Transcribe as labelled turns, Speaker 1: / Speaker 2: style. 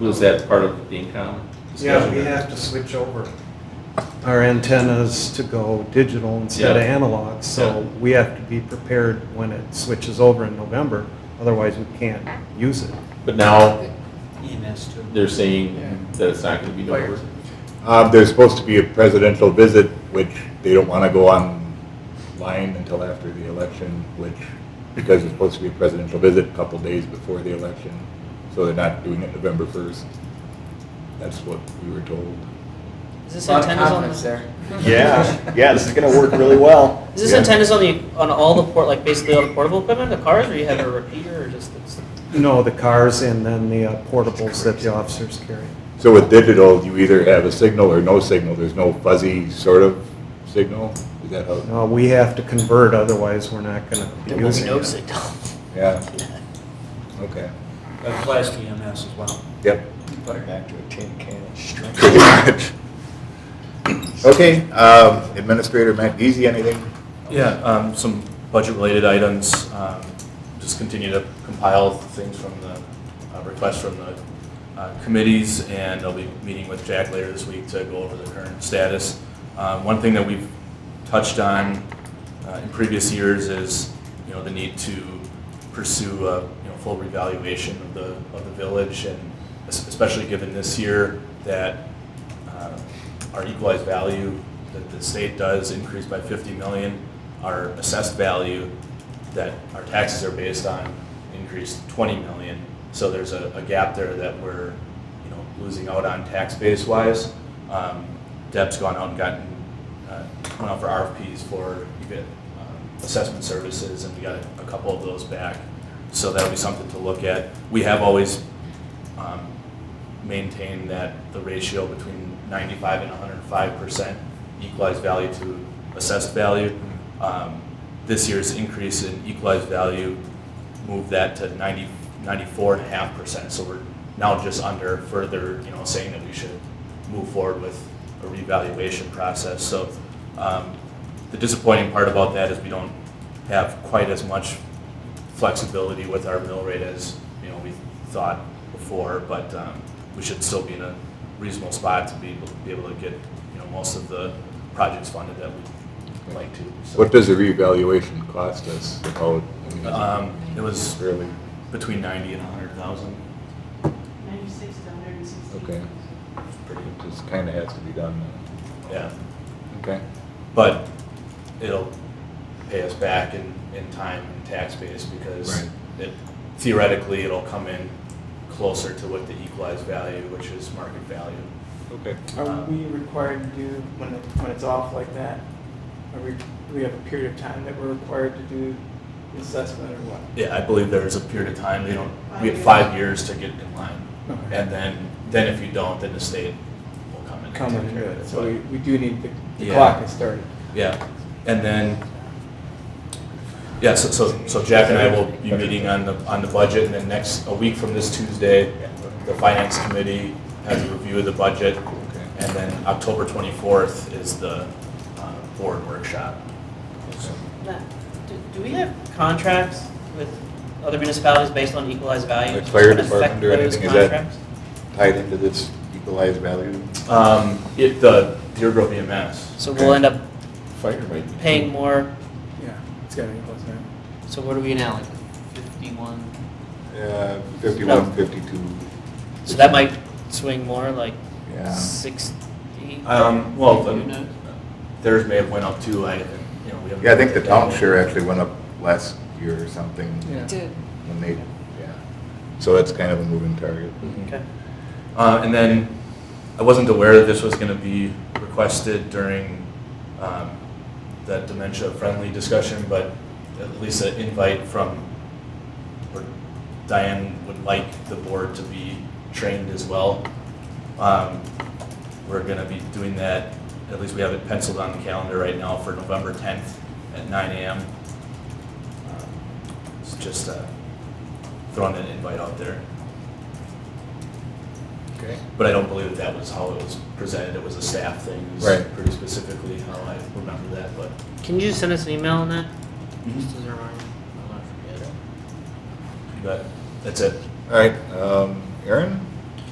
Speaker 1: Was that part of the income?
Speaker 2: Yeah,
Speaker 1: discussion?
Speaker 2: we have to switch over our antennas to go digital instead of
Speaker 1: Yeah.
Speaker 2: analog, so
Speaker 1: Yeah.
Speaker 2: we have to be prepared when it switches over in November, otherwise we can't use it.
Speaker 1: But now
Speaker 3: EMS too.
Speaker 1: they're saying that it's not gonna be November.
Speaker 4: Uh, There's supposed to be a presidential visit, which they don't want to go online until after the election, which, because it's supposed to be a presidential visit a couple days before the election, so they're not doing it November 1st. That's what we were told.
Speaker 5: Is this
Speaker 3: A lot of
Speaker 5: antennas on
Speaker 3: confidence
Speaker 5: the,
Speaker 3: there.
Speaker 6: Yeah, yeah, this is gonna work really well.
Speaker 5: Is this
Speaker 4: Yeah.
Speaker 5: antennas on the on all the port like basically all the portable equipment, the cars, or you have a repeater or just it's,
Speaker 2: No, the cars and then the uh, portables that the officers carry.
Speaker 4: So with digital, you either have a signal or no signal. There's no fuzzy sort of signal. Is that how?
Speaker 2: No, Uh, we have to convert, otherwise we're not gonna be
Speaker 5: there will be
Speaker 2: using
Speaker 5: no
Speaker 2: it.
Speaker 5: signal?
Speaker 4: Yeah. Okay.
Speaker 3: That applies to EMS as well.
Speaker 4: Yep.
Speaker 3: But
Speaker 6: Back to a tin can of strength.
Speaker 4: Pretty much. Okay, um, Administrator Matt Giese, anything?
Speaker 7: Yeah, um, some budget-related items, um, just continue to compile things from the, uh, requests from the uh, committees, and I'll be meeting with Jack later this week to go over the current status. Um, One thing that we've touched on uh, in previous years is, you know, the need to pursue a, you know, full revaluation of the, of the village, and es- especially given this year that uh, our equalized value that the state does increase by 50 million, our assessed value that our taxes are based on increased 20 million. So there's a, a gap there that we're, you know, losing out on tax base wise. Um, Deb's gone out and gotten, uh, went out for RFPs for you get, um, assessment services and we got a couple of those back. So that'll be something to look at. We have always um, maintain that the ratio between 95 and 105 percent equalized value to assessed value. Um, This year's increase in equalized value moved that to 90, 94 and a half percent. So we're now just under further, you know, saying that we should move forward with a revaluation process. So um, the disappointing part about that is we don't have quite as much flexibility with our mill rate as, you know, we thought before, but um, we should still be in a reasonable spot to be able, be able to get, you know, most of the projects funded that we'd like to. so.
Speaker 4: What does the revaluation cost us about? I mean,
Speaker 7: Um, It was
Speaker 4: Really?
Speaker 7: between ninety and a hundred thousand.
Speaker 8: 96 to 116.
Speaker 4: Okay. Pretty, it just kind of has to be done. uh,
Speaker 7: Yeah,
Speaker 4: Okay.
Speaker 7: but it'll pay us back in, in time and tax base because
Speaker 4: Right.
Speaker 7: it theoretically, it'll come in closer to what the equalized value, which is market value.
Speaker 4: Okay.
Speaker 9: Are we required to do, when, it- when it's off like that, are we, do we have a period of time that we're required to do the assessment or what?
Speaker 7: Yeah, I believe there is a period of time, they don't, we have
Speaker 8: Five
Speaker 7: five years to get in line.
Speaker 9: Okay.
Speaker 7: And then, then if you don't, then the state will come in. and
Speaker 9: Come
Speaker 7: take
Speaker 9: and do
Speaker 7: care of
Speaker 9: it,
Speaker 7: it.
Speaker 9: so we, we do need, the the
Speaker 7: Yeah.
Speaker 9: clock is started.
Speaker 7: But, Yeah, and then, yeah, so, so, so Jack and I will be meeting on the, on the budget, and then next, a week from this Tuesday, the finance committee has a review of the budget, and then October twenty-fourth is the, uh, board workshop.
Speaker 5: Matt, do, do we have contracts with other municipalities based on equalized value?
Speaker 4: Like fire
Speaker 5: Does that affect
Speaker 4: department or
Speaker 5: those
Speaker 4: anything, is that-
Speaker 5: contracts?
Speaker 4: Tied into this equalized value?
Speaker 7: Um, it, the Deer Grove E EMS,
Speaker 5: So we'll end up
Speaker 4: Fire might be.
Speaker 5: paying more.
Speaker 9: Yeah, it's gotta be close now.
Speaker 5: So what are we now? Like fifty-one.
Speaker 4: Uh, 51, 52.
Speaker 5: So that might swing more, like
Speaker 4: Yeah.
Speaker 5: sixty.
Speaker 7: um, well, the-
Speaker 5: You know?
Speaker 7: theirs may have went up too, I, you know, we haven't.
Speaker 4: Yeah, I think the town share actually went up last year or something
Speaker 9: Yeah.
Speaker 10: Did.
Speaker 4: when they, yeah. So that's kind of a moving target.
Speaker 5: Okay.
Speaker 7: Uh, and then I wasn't aware that this was going to be requested during um, that dementia-friendly discussion, but at least an invite from, or Diane would like the board to be trained as well. Um, We're going to be doing that, at least we have it penciled on the calendar right now for November 10th at 9 AM. Um, It's just uh, throwing an invite out there.
Speaker 4: Okay.
Speaker 7: But I don't believe that that was how it was presented, it was a staff thing. It was
Speaker 4: Right.
Speaker 7: Pretty specifically how I remember that, but.
Speaker 5: Can you send us an email on that?
Speaker 3: Mm-hmm.
Speaker 7: Mhm.
Speaker 5: Just as a reminder. I'll not forget.
Speaker 7: But that's it.
Speaker 4: All right, um, Aaron?